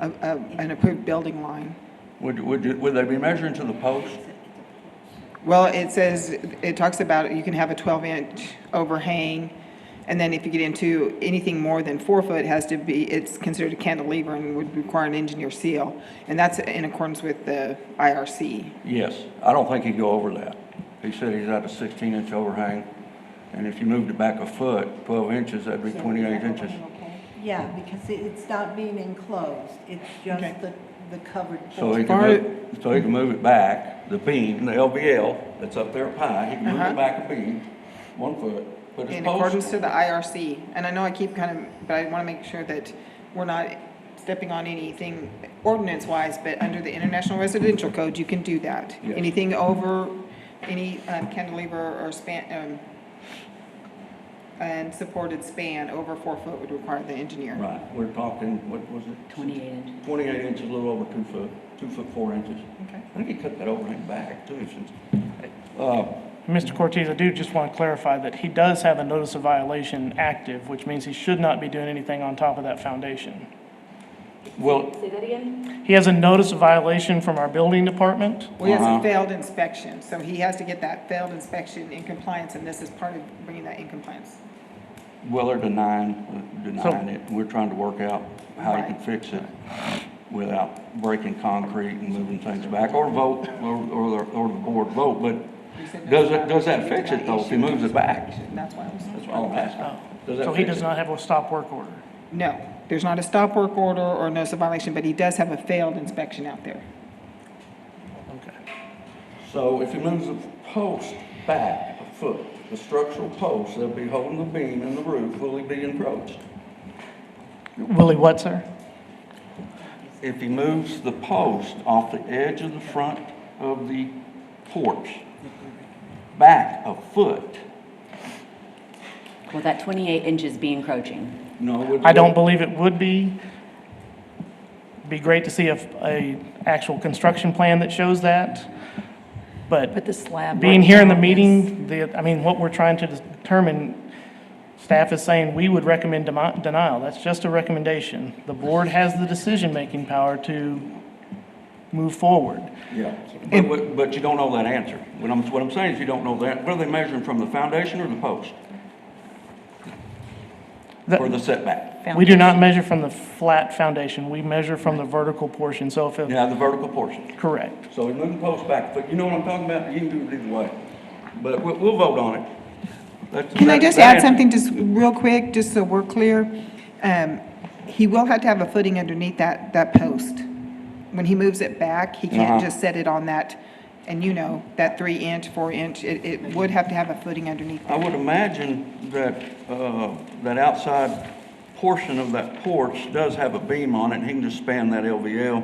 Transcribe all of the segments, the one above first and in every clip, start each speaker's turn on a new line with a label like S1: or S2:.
S1: a, a, an approved building line.
S2: Would, would, you- would they be measuring to the post?
S1: Well, it says, it talks about you can have a 12-inch overhang, and then if you get into anything more than four foot, it has to be, it's considered a cantilever and would require an engineer seal. And that's in accordance with the IRC.
S2: Yes, I don't think he'd go over that. He said he's at a sixteen inch overhang, and if you moved it back a foot, twelve inches, that'd be twenty-eight inches.
S3: Yeah, because it- it's not being enclosed, it's
S1: Okay.
S3: just the, the covered
S2: So he
S3: porch.
S2: can, move- so he can move it back, the beam, the LVL that's up there at Pine, he can move
S1: Uh-huh.
S2: it back a beam, one foot, put his
S1: In accordance
S2: post.
S1: to the IRC. And I know I keep kind of, but I want to make sure that we're not stepping on anything ordinance-wise, but under the International Residential Code, you can do that.
S2: Yes.
S1: Anything over, any um, cantilever or span, um, and supported span over four foot would require the engineer.
S2: Right, we're talking, what was it?
S4: Twenty-eight inches.
S2: Twenty-eight inches, a little over two foot, two foot four inches.
S1: Okay.
S2: I think he cut that overhang back too, since, uh,
S5: Mr. Cortez, I do just want to clarify that he does have a notice of violation active, which means he should not be doing anything on top of that foundation.
S2: well,
S4: Say that again?
S5: He has a notice of violation from our building department.
S1: Well, he has
S2: Uh-huh.
S1: a failed inspection, so he has to get that failed inspection in compliance, and this is part of bringing that in compliance.
S2: Well, they're denying, denying it. We're trying to work out how you can
S1: Right.
S2: fix it without breaking concrete and moving things back, or vote, or, or, the- or the board vote, but
S1: You said
S2: does
S1: that's
S2: it,
S1: not-
S2: does that fix it though, if he moves it back?
S1: That's why I was.
S2: That's all I'm asking. Does that
S5: uh, So he
S2: fix
S5: does
S2: it?
S5: not have a stop work order.
S1: No, there's not a stop work order or notice of violation, but he does have a failed inspection out there.
S5: Okay.
S2: So if he moves the post back a foot, the structural post, they'll be holding the beam and the roof, will he be encroached?
S5: Willie what, sir?
S2: If he moves the post off the edge of the front of the porch, back a foot,
S4: Will that twenty-eight inches be encroaching?
S2: No, would.
S5: I don't believe it would be. Be great to see a, a actual construction plan that shows that. But
S6: But the slab.
S5: being here in the
S6: right now is-
S5: meeting, the, I mean, what we're trying to determine, staff is saying we would recommend demi- denial. That's just a recommendation. The board has the decision-making power to move forward.
S2: Yeah. But, but- but you don't know that answer. What I'm, what I'm saying is you don't know that. What are they measuring from, the foundation or the post?
S5: The-
S2: For the setback?
S5: We do not measure from the flat foundation. We measure from the vertical portion. So if, it-
S2: Yeah, the vertical portion.
S5: correct.
S2: So we move the post back, but you know what I'm talking about? You can do it either way. But we'll, we'll vote on it. That's-
S1: Can I
S2: that-
S1: just
S2: that
S1: add
S2: answer-
S1: something just real quick, just so we're clear? Um, He will have to have a footing underneath that, that post. When he moves it back, he
S2: Uh-huh.
S1: can't just set it on that, and you know, that three inch, four inch, it, it would have to have a footing underneath
S2: I would imagine that, uh, that outside portion of that porch does have a beam on it. He can just span that LVL.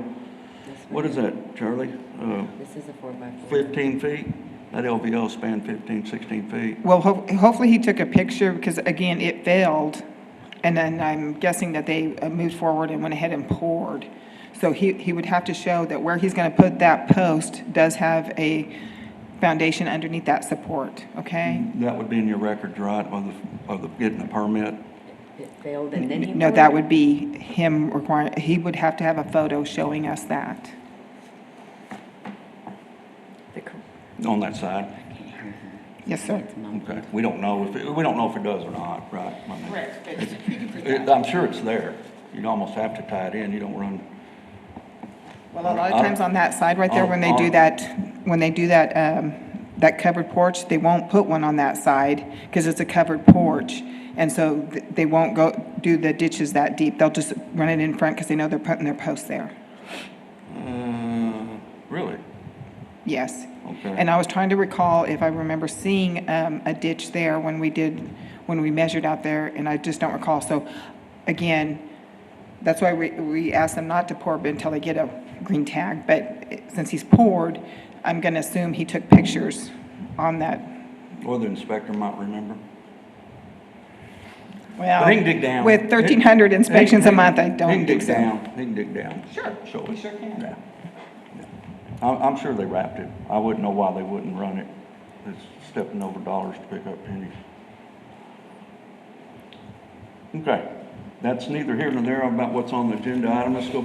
S2: What is that, Charlie? Uh,
S4: This is a four by four.
S2: 15 feet? That LVL span 15, 16 feet.
S1: Well, ho- hopefully he took a picture, because again, it failed, and then I'm guessing that they uh, moved forward and went ahead and poured. So he, he would have to show that where he's gonna put that post does have a foundation underneath that support, okay?
S2: That would be in your records, right, of the, of the, getting a permit?
S4: It failed and then he.
S1: No, that would be him requiring, he would have to have a photo showing us that.
S4: The cor-
S2: On that side?
S1: Yes, sir.
S2: Okay, we don't know if, it- we don't know if it does or not, right? I mean, it- I'm sure it's there. You'd almost have to tie it in, you don't run,
S1: Well, a lot of times on that side right there, when they do that, when they do that, um, that covered porch, they won't put one on that side because it's a covered porch. And so th- they won't go, do the ditches that deep. They'll just run it in front because they know they're putting their posts there.
S2: uh, really?
S1: Yes.
S2: Okay.
S1: And I was trying to recall if I remember seeing, um, a ditch there when we did, when we measured out there, and I just don't recall. So again, that's why we, we asked them not to pour but until they get a green tag. But eh, since he's poured, I'm gonna assume he took pictures on that.
S2: Or the inspector might remember.
S1: Well,
S2: But he can dig down.
S1: With thirteen hundred inspections a month, I
S2: He
S1: don't think
S2: can dig
S1: so.
S2: down, he can dig down.
S1: Sure,
S2: Show
S1: he
S2: us.
S1: sure can.
S2: Yeah. I'm, I'm sure they wrapped it. I wouldn't know why they wouldn't run it. It's stepping over dollars to pick up pennies. Okay, that's neither here nor there about what's on the agenda item. Let's go